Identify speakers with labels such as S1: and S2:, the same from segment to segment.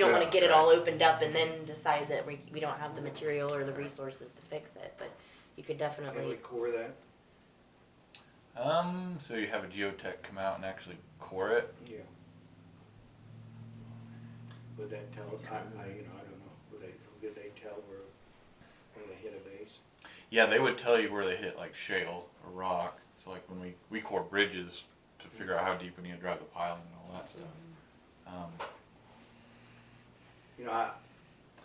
S1: You don't
S2: Yeah,
S1: wanna get it
S2: right.
S1: all opened up and then decide that we, we don't have the material or the resources to fix it, but you could
S2: Can we
S1: definitely,
S2: core that?
S3: Um, so you have a geotech come out and actually core it?
S2: Yeah. Would that tell us, I, I, you know, I don't know, would they, did they tell where, where they hit a base?
S3: Yeah, they would tell you where they hit like shale or rock. So like when we, we core bridges to figure out how deep we need to drive the piling and all that stuff. Um,
S2: You know, I,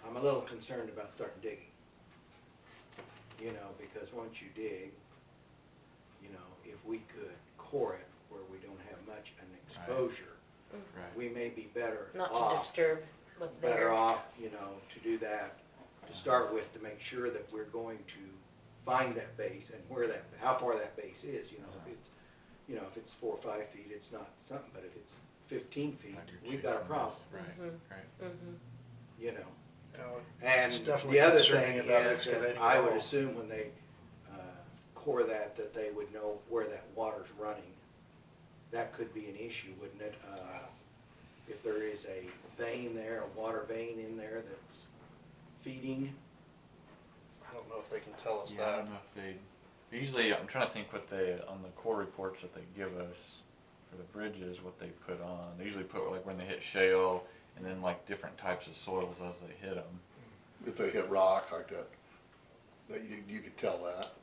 S2: I'm a little concerned about starting digging. You know, because once you dig, you know, if we could core it where we don't have much an exposure,
S3: right.
S2: we may be better
S1: not to
S2: off
S1: disturb what's there.
S2: better off, you know, to do that, to start with, to make sure that we're going to find that base and where that, how far that base is, you know, if it's, you know, if it's four or five feet, it's not something, but if it's fifteen feet,
S3: Like your
S2: we've got a
S3: chicks and
S2: problem,
S3: this. Right,
S1: Mhm.
S3: right.
S1: Mhm.
S2: you know?
S4: Now,
S2: And
S4: It's
S2: the
S4: definitely
S2: other
S4: concerning
S2: thing
S4: about
S2: is that
S4: excavating
S2: I
S4: the
S2: would
S4: hole.
S2: assume when they, uh, core that, that they would know where that water's running. That could be an issue, wouldn't it? Uh, if there is a vein there, a water vein in there that's feeding.
S4: I don't know if they can tell us
S3: Yeah, I
S4: that.
S3: don't know if they, usually, I'm trying to think what they, on the core reports that they give us for the bridges, what they put on. They usually put like when they hit shale and then like different types of soils as they hit them.
S5: if they hit rock like that, that you, you could tell that.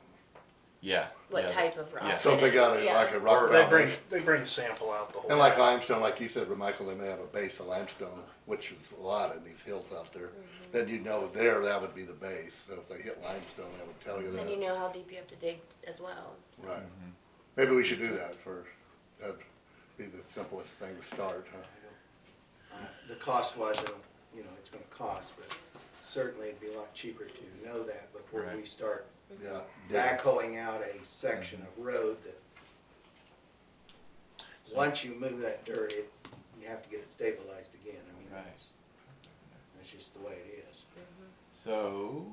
S3: Yeah.
S1: What
S3: yeah,
S1: type of
S3: Yeah.
S1: rock?
S5: So if they
S1: it
S5: got
S1: is,
S5: a,
S1: yeah.
S5: like a rock
S4: They bring,
S5: foundation,
S4: they bring sample out the whole.
S5: and like
S4: time.
S5: limestone, like you said, Michael, they may have a base of limestone, which is a lot in these hills out there.
S1: Mm-hmm.
S5: Then you know there, that would be the base, so if they hit limestone, that would tell you
S1: And you
S5: that.
S1: know how deep you have to dig as well.
S5: Right.
S3: Mm-hmm.
S5: Maybe we should do that first. That'd be the simplest thing to start, huh?
S2: Uh, The cost wise, I don't- you know, it's gonna cost, but certainly it'd be a lot cheaper to know that before we
S3: Right.
S2: start
S1: Mm-hmm.
S5: Yeah. dig it.
S2: backhoeing out a section of road that,
S3: Mm-hmm. So-
S2: once you move that dirt, it, you have to get it stabilized again. I mean,
S3: Right.
S2: that's, that's just the way it is.
S1: Mm-hmm.
S3: So,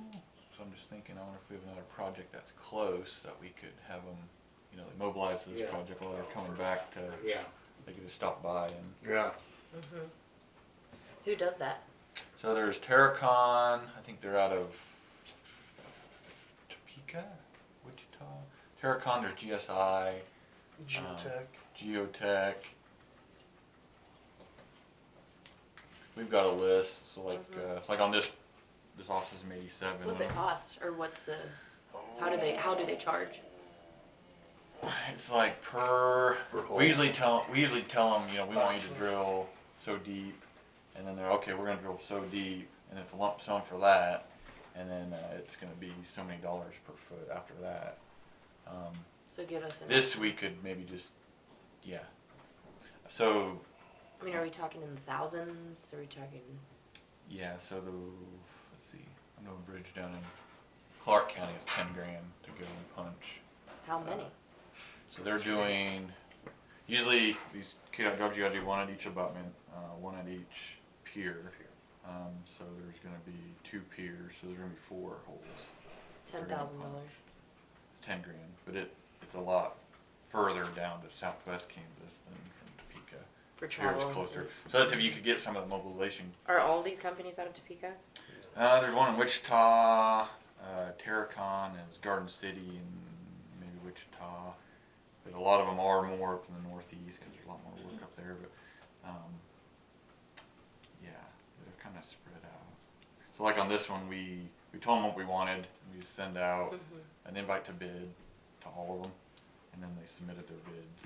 S3: so I'm just thinking, I wonder if we have another project that's close that we could have them, you know, they mobilize this
S2: Yeah.
S3: project while they're coming back to,
S2: Yeah,
S3: they could just stop by and.
S5: Yeah,
S1: Mm-hmm. Who does that?
S3: So there's Terracon, I think they're out of Topeka, Wichita. Terracon, there's GSI,
S4: Geotech,
S3: Geotech. We've got a list, so like, uh, like on this, this office is in eighty-seven.
S1: Mm-hmm. What's it
S2: Mm-hmm.
S3: uh,
S1: cost or what's the, how do they, how do they charge?
S3: It's like per,
S5: Per hole.
S3: we usually tell, we usually tell them, you know, we want you to drill so deep, and then they're, okay, we're gonna drill so deep, and it's a lump sum for that, and then, uh, it's gonna be so many dollars per foot after that. Um,
S1: So give us an,
S3: this we could maybe just, yeah. So,
S1: I mean, are we talking in the thousands? Are we talking,
S3: yeah, so the, let's see, I know a bridge down in Clark County is ten grand to go and punch.
S1: how
S2: Uh,
S1: many?
S3: So they're doing, usually these KDOT jobs, you gotta do one at each abutment, uh, one at each pier. Um, so there's gonna be two piers, so there's gonna be four holes,
S1: Ten thousand dollars?
S3: ten grand, but it, it's a lot further down to southwest Kansas than from Topeka.
S1: For
S3: Here it's
S1: travel.
S3: closer, so that's if you could get some of the mobilization.
S1: Are all these companies out of Topeka?
S3: Uh, there's one in Wichita, uh, Terracon is Garden City and maybe Wichita. But a lot of them are more up in the northeast because there's a lot more work up there. But um, yeah, they're kind of spread out. So like on this one, we we told them what we wanted. and We send out an invite to bid to all of them, and then they submitted their bids.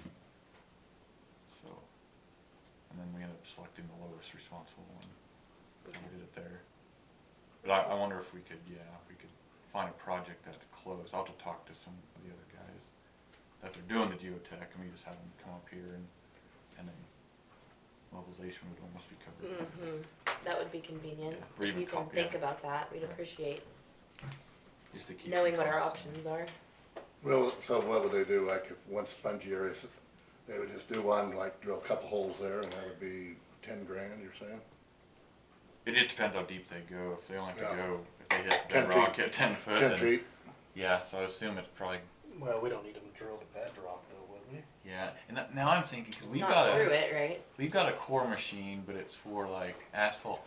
S3: So and then we ended up selecting the lowest responsible one. So we did it there. But I, I wonder if we could, yeah, if we could find a project that's close. I'll have to talk to some of the other guys that are doing the geotech and we just have them come up here and, and then mobilization would almost be covered.
S1: Mm-hmm. That would be convenient.
S3: Yeah, or
S1: If
S3: even
S1: you can
S3: copy
S1: think
S3: it.
S1: about that, we'd
S3: Right.
S1: appreciate
S3: Just to keep
S1: knowing
S3: some
S1: what our
S3: costs down.
S1: options are.
S5: well, so what would they do, like if one spongy area, they would just do one, like drill a couple holes there, and that would be ten grand, you're saying?
S3: It just depends how deep they go. If they only have to
S5: Yeah.
S3: go, if they hit
S5: Ten
S3: bedrock
S5: feet.
S3: at ten foot.
S5: Ten
S3: then-
S5: feet?
S3: Yeah, so I assume it's probably,
S4: well, we don't need them to drill the bedrock though, would we?
S3: yeah. And that, now I'm thinking, cause we've
S1: Not
S3: got
S1: through
S3: a,
S1: it, right?
S3: we've got a core machine, but it's for like asphalt